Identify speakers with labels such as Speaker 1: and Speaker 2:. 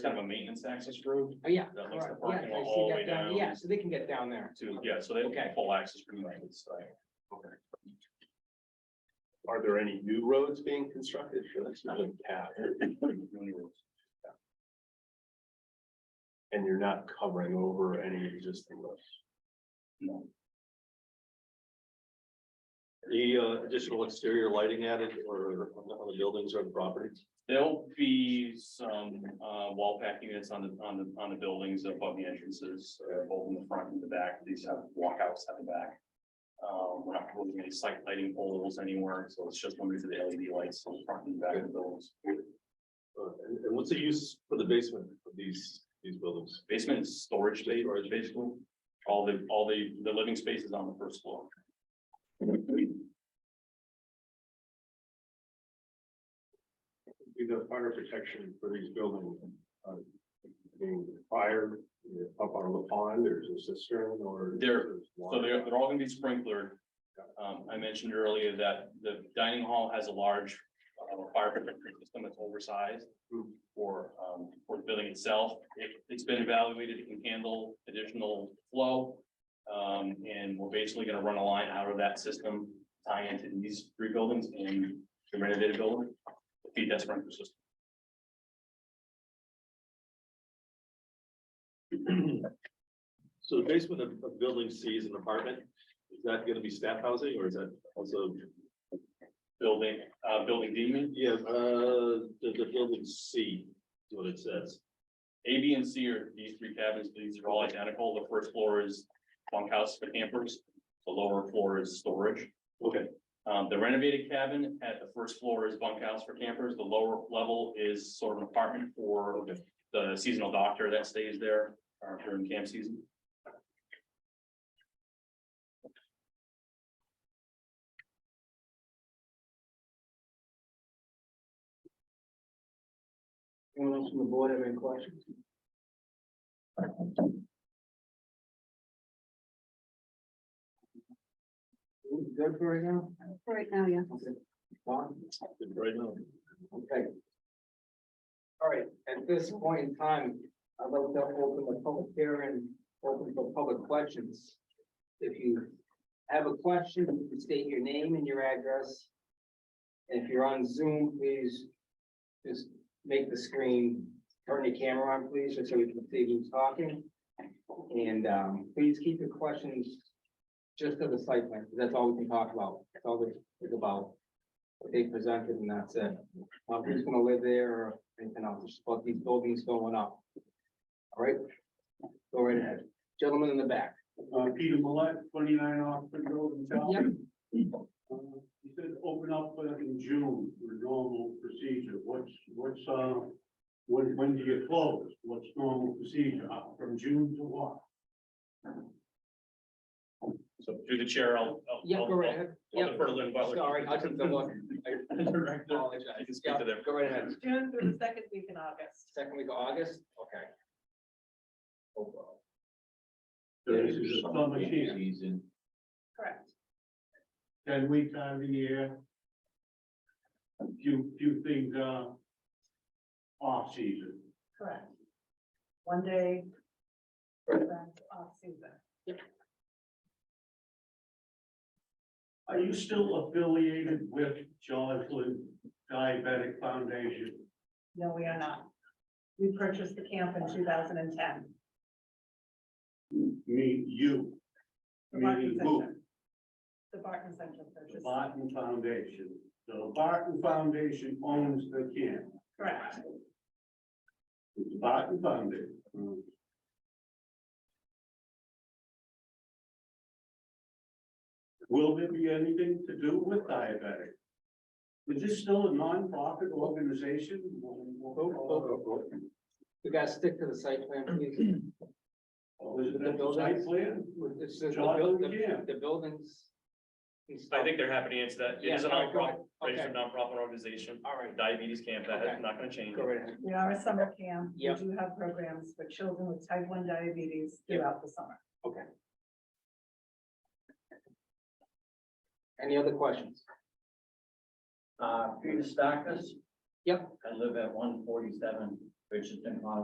Speaker 1: maintenance access road
Speaker 2: Oh, yeah.
Speaker 1: That makes the
Speaker 2: right,
Speaker 1: parking
Speaker 2: yeah,
Speaker 1: lot
Speaker 2: I see
Speaker 1: all the
Speaker 2: that
Speaker 1: way
Speaker 2: down.
Speaker 1: down.
Speaker 2: Yeah, so they can get down there.
Speaker 1: to, yeah, so they
Speaker 2: Okay.
Speaker 1: have full access from the right side.
Speaker 3: Are there any new roads being constructed? Sure, that's not in cap. And you're not covering over any existing roads?
Speaker 1: No.
Speaker 3: The uh, additional exterior lighting added or on the buildings or the properties?
Speaker 1: There'll be some uh wall pack units on the on the on the buildings above the entrances, uh, both in the front and the back, these have walkouts at the back. Um, we're not proposing any site lighting poles anywhere, so it's just limited to the LED lights on the front and back of the buildings.
Speaker 3: Uh, and, and what's the use for the basement of these, these buildings?
Speaker 1: Basement is storage space, or basically, all the all the the living space is on the first floor.
Speaker 3: Be the fire protection for these buildings, uh, being fire, you know, up on the pond, there's a cistern or.
Speaker 1: There- So they're, they're all gonna be sprinklered. Um, I mentioned earlier that the dining hall has a large, uh, fire protection system that's oversized.
Speaker 3: Hmm.
Speaker 1: For, um, for the building itself, it, it's been evaluated, it can handle additional flow. Um, and we're basically gonna run a line out of that system, tie into these three buildings and the renovated building. Feed that sprinkler system.
Speaker 3: So the basement of, of building C is an apartment, is that gonna be staff housing or is that also?
Speaker 1: Building, uh, building D, you mean?
Speaker 3: Yeah, uh, the, the building C is what it says.
Speaker 1: A, B, and C are these three cabins, these are all identical, the first floor is bunkhouse for campers, the lower floor is storage.
Speaker 3: Okay.
Speaker 1: Um, the renovated cabin at the first floor is bunkhouse for campers, the lower level is sort of an apartment for
Speaker 3: Okay.
Speaker 1: the seasonal doctor that stays there uh, during camp season.
Speaker 2: Anyone else from the board have any questions? Good for right now?
Speaker 4: Right now, yeah.
Speaker 2: Fine.
Speaker 3: Right now.
Speaker 2: Okay. All right, at this point in time, I'd like to open the public hearing, open for public questions. If you have a question, you can state your name and your address. And If you're on Zoom, please just make the screen, turn your camera on, please, just so we can see who's talking. And um, please keep your questions just to the site plan, 'cause that's all we can talk about, that's all we think about. What they presented and that's it. I'm just gonna live there or anything else, just about these buildings going up. All right, go right ahead. Gentlemen in the back.
Speaker 5: Uh, Peter Millette, twenty-nine Oxford Road in Charlton. Uh, You said open up uh, in June for normal procedure. What's, what's, uh, when, when do you close? What's normal procedure? Uh, From June to what?
Speaker 1: So through the chair, I'll. I'll-
Speaker 2: Yeah, go right
Speaker 1: I'll-
Speaker 2: ahead.
Speaker 1: I'll
Speaker 2: Yeah,
Speaker 1: defer to Lynn Butler.
Speaker 2: sorry, I took the look. I
Speaker 1: Director,
Speaker 2: apologize.
Speaker 1: I can speak
Speaker 2: Yeah,
Speaker 1: to them.
Speaker 2: Go right ahead.
Speaker 4: June through the second week in August.
Speaker 2: Second week of August, okay. Oh,
Speaker 5: So This is a summer camp,
Speaker 4: Correct.
Speaker 5: ten weeks out of the year. Few, few things, uh, off season.
Speaker 4: Correct. One day. event Off season.
Speaker 5: Are you still affiliated with Joslin Diabetic Foundation?
Speaker 4: No, we are not. We purchased the camp in two thousand and ten.
Speaker 5: Me, you.
Speaker 4: The Barton
Speaker 5: Meaning who?
Speaker 4: Center. The Barton Center
Speaker 5: The
Speaker 4: purchased.
Speaker 5: Barton Foundation. The Barton Foundation owns the camp.
Speaker 4: Correct.
Speaker 5: It's the Barton
Speaker 2: Hmm.
Speaker 5: Foundation. Will there be anything to do with diabetic? Is this still a nonprofit organization?
Speaker 2: oh, oh. You guys stick to the site plan, please.
Speaker 5: Or Oh, is it a site plan?
Speaker 2: It's just the buil-
Speaker 5: John,
Speaker 2: the-
Speaker 5: yeah.
Speaker 2: the buildings. and stuff.
Speaker 1: I think they're happy to answer that. It is a
Speaker 2: Yeah, all right, go
Speaker 1: nonprofit,
Speaker 2: ahead.
Speaker 1: registered
Speaker 2: Okay,
Speaker 1: nonprofit organization,
Speaker 2: all right,
Speaker 1: diabetes camp, that is not gonna change.
Speaker 2: go right ahead.
Speaker 4: We are a summer camp.
Speaker 2: Yep.
Speaker 4: We do have programs for children with type one diabetes
Speaker 2: Yep.
Speaker 4: throughout the summer.
Speaker 2: Any other questions?
Speaker 6: Uh, Peter Stackis.
Speaker 2: Yep.
Speaker 6: I live at one forty-seven Richardson Highway.